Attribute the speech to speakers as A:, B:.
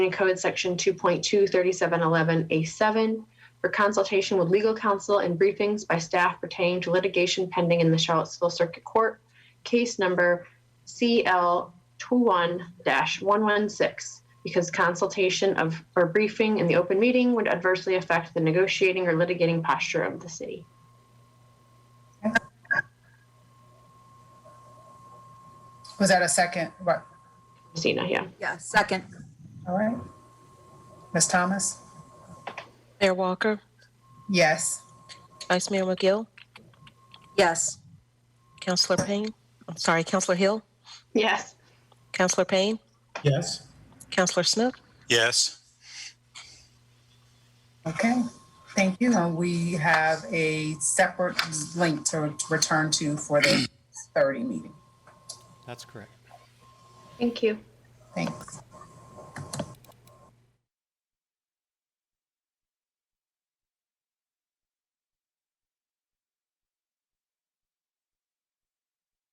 A: and Code Section 2.23711A7 for consultation with legal counsel and briefings by staff pertaining to litigation pending in the Charlottesville Circuit Court, case number CL21-116, because consultation of or briefing in the open meeting would adversely affect the negotiating or litigating posture of the city.
B: Was that a second? What?
A: Christina, yeah.
C: Yeah, second.
B: All right. Ms. Thomas?
D: Mayor Walker,
B: Yes.
D: Vice Mayor McGill,
C: Yes.
D: Councillor Payne, I'm sorry, Councillor Hill,
A: Yes.
D: Councillor Payne,
E: Yes.
D: Councillor Smith,
E: Yes.
B: Okay. Thank you. And we have a separate link to return to for the 30 meeting.
F: That's correct.
A: Thank you.
B: Thanks.